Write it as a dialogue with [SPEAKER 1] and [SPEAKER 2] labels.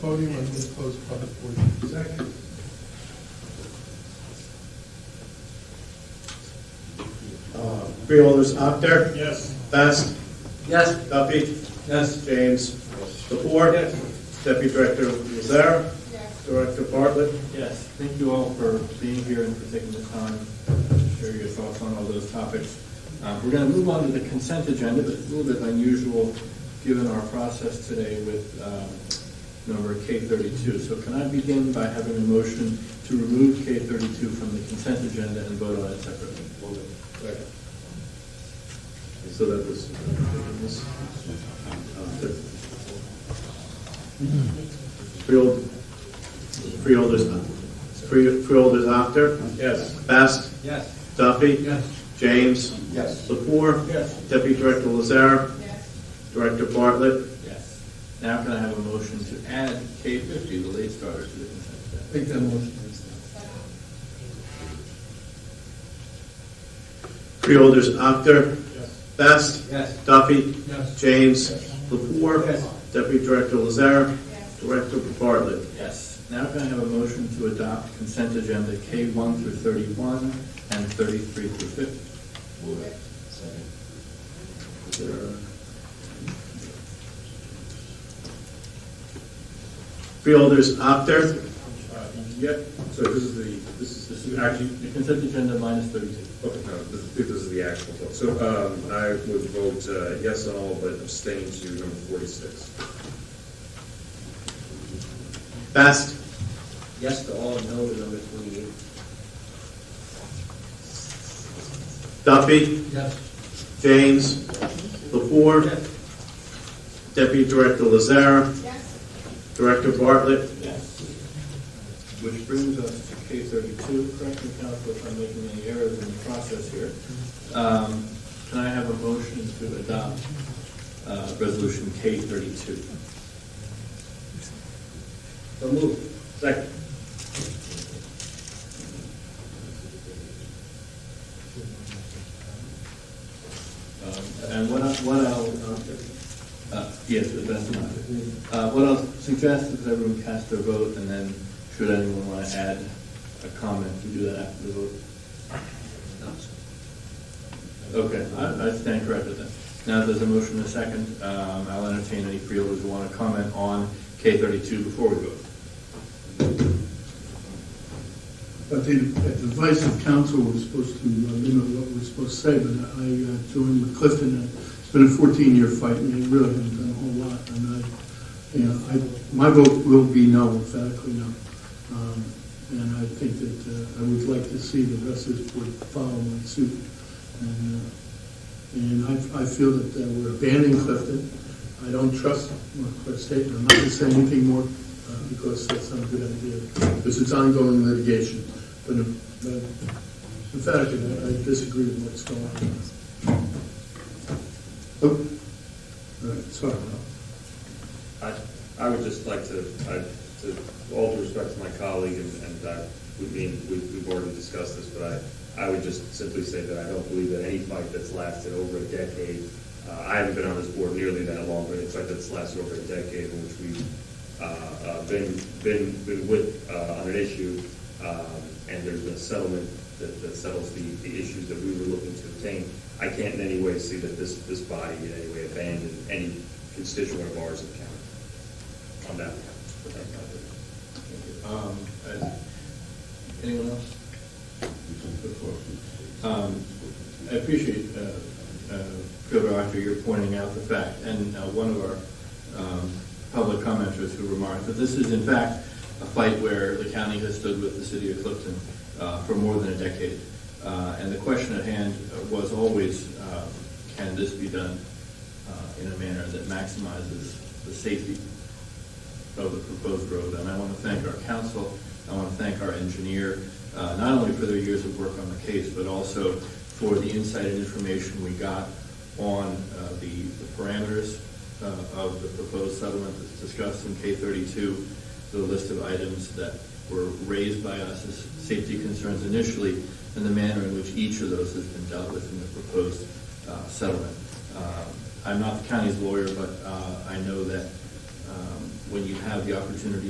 [SPEAKER 1] podium and then close public portion. Second.
[SPEAKER 2] Uh, Freeholders, Apter,
[SPEAKER 1] Yes.
[SPEAKER 2] Best,
[SPEAKER 3] Yes.
[SPEAKER 2] Duffy. Yes. James. Lepore.
[SPEAKER 1] Yes.
[SPEAKER 2] Deputy Director Lazar. Director Bartlett.
[SPEAKER 4] Yes, thank you all for being here and for taking the time to share your thoughts on all those topics. Um, We're going to move on to the consent agenda, but it's a little bit unusual, given our process today with um, number K32. So can I begin by having a motion to remove K32 from the consent agenda and vote on it separately?
[SPEAKER 2] So that was. Freehold, freeholders, free- freeholders, Apter. Yes. Best,
[SPEAKER 3] Yes.
[SPEAKER 2] Duffy. James.
[SPEAKER 3] Yes.
[SPEAKER 2] Lepore. Deputy Director Lazar. Director Bartlett.
[SPEAKER 4] Yes. Now can I have a motion to add K50, the late starter, to the consent agenda?
[SPEAKER 1] Make that motion.
[SPEAKER 2] Freeholders, Apter. Best,
[SPEAKER 3] Yes.
[SPEAKER 2] Duffy.
[SPEAKER 1] Yes.
[SPEAKER 2] James. Lepore.
[SPEAKER 1] Yes.
[SPEAKER 2] Deputy Director Lazar. Director Bartlett.
[SPEAKER 4] Yes. Now can I have a motion to adopt consent agenda K1 through 31 and 33 through 50?
[SPEAKER 2] Is there a- Freeholders, Apter.
[SPEAKER 5] Yep, so this is the, this is, this is actually,
[SPEAKER 4] The consent agenda minus 32.
[SPEAKER 5] okay, no, this is, this is the actual vote. So, um, I would vote uh, yes on all, but abstain to number forty-six.
[SPEAKER 2] Best,
[SPEAKER 3] Yes to all, no to number twenty-eight.
[SPEAKER 2] Duffy.
[SPEAKER 1] Yes.
[SPEAKER 2] James. Lepore. Deputy Director Lazar. Director Bartlett.
[SPEAKER 4] Yes. Which brings us to K32. Correct me, counsel, if I'm making any errors in the process here. Um, Can I have a motion to adopt uh, resolution K32?
[SPEAKER 3] So moved.
[SPEAKER 2] Second.
[SPEAKER 4] Um, And what I, what I'll, uh, yes, but that's not it. Uh, what I'll suggest is everyone cast their vote, and then should anyone want to add a comment, we do that after the vote. Okay, I, I stand corrected then. Now, there's a motion and a second, um, I'll entertain any freeholders who want to comment on K thirty-two before we vote.
[SPEAKER 6] At the at the advice of council, we're supposed to uh, limit what we're supposed to say, but I uh, joined with Clifton, and it's been a 14-year fight, and they really haven't done a whole lot, and I, you know, I, my vote will be no, emphatically no. Um, And I think that uh, I would like to see the rest of this board follow my suit. And, uh, and I, I feel that uh, we're abandoning Clifton. I don't trust North Cliff State, and I'm not gonna say anything more, uh, because that's not a good idea, because it's ongoing litigation. But uh, but emphatically, I I disagree with what's going on. Oh, all right, sorry.
[SPEAKER 5] I, I would just like to, I, to, all due respect to my colleague, and, and I, we mean, we, we've already discussed this, but I, I would just simply say that I don't believe that any fight that's lasted over a decade, uh, I haven't been on this board nearly that long, but any fight that's lasted over a decade in which we've, uh, uh, been, been, been with, uh, on an issue, um, and there's been a settlement that, that settles the, the issues that we were looking to obtain. I can't in any way see that this, this body in any way abandoned any constituent of ours in the county on that.
[SPEAKER 4] Um, uh, Anyone else? Before. Um, I appreciate, uh, uh, Field Director, you're pointing out the fact, and uh, one of our um, public commenters who remarked that this is in fact a fight where the county has stood with the city of Clifton uh, for more than a decade. Uh, And the question at hand was always, uh, can this be done uh, in a manner that maximizes the safety of the proposed road, and I want to thank our council, I want to thank our engineer, uh, not only for their years of work on the case, but also for the insight and information we got on uh, the the parameters uh, of the proposed settlement that's discussed in K thirty-two, the list of items that were raised by us as safety concerns initially, and the manner in which each of those has been dealt with in the proposed uh, settlement. Uh, I'm not the county's lawyer, but uh, I know that um, when you have the opportunity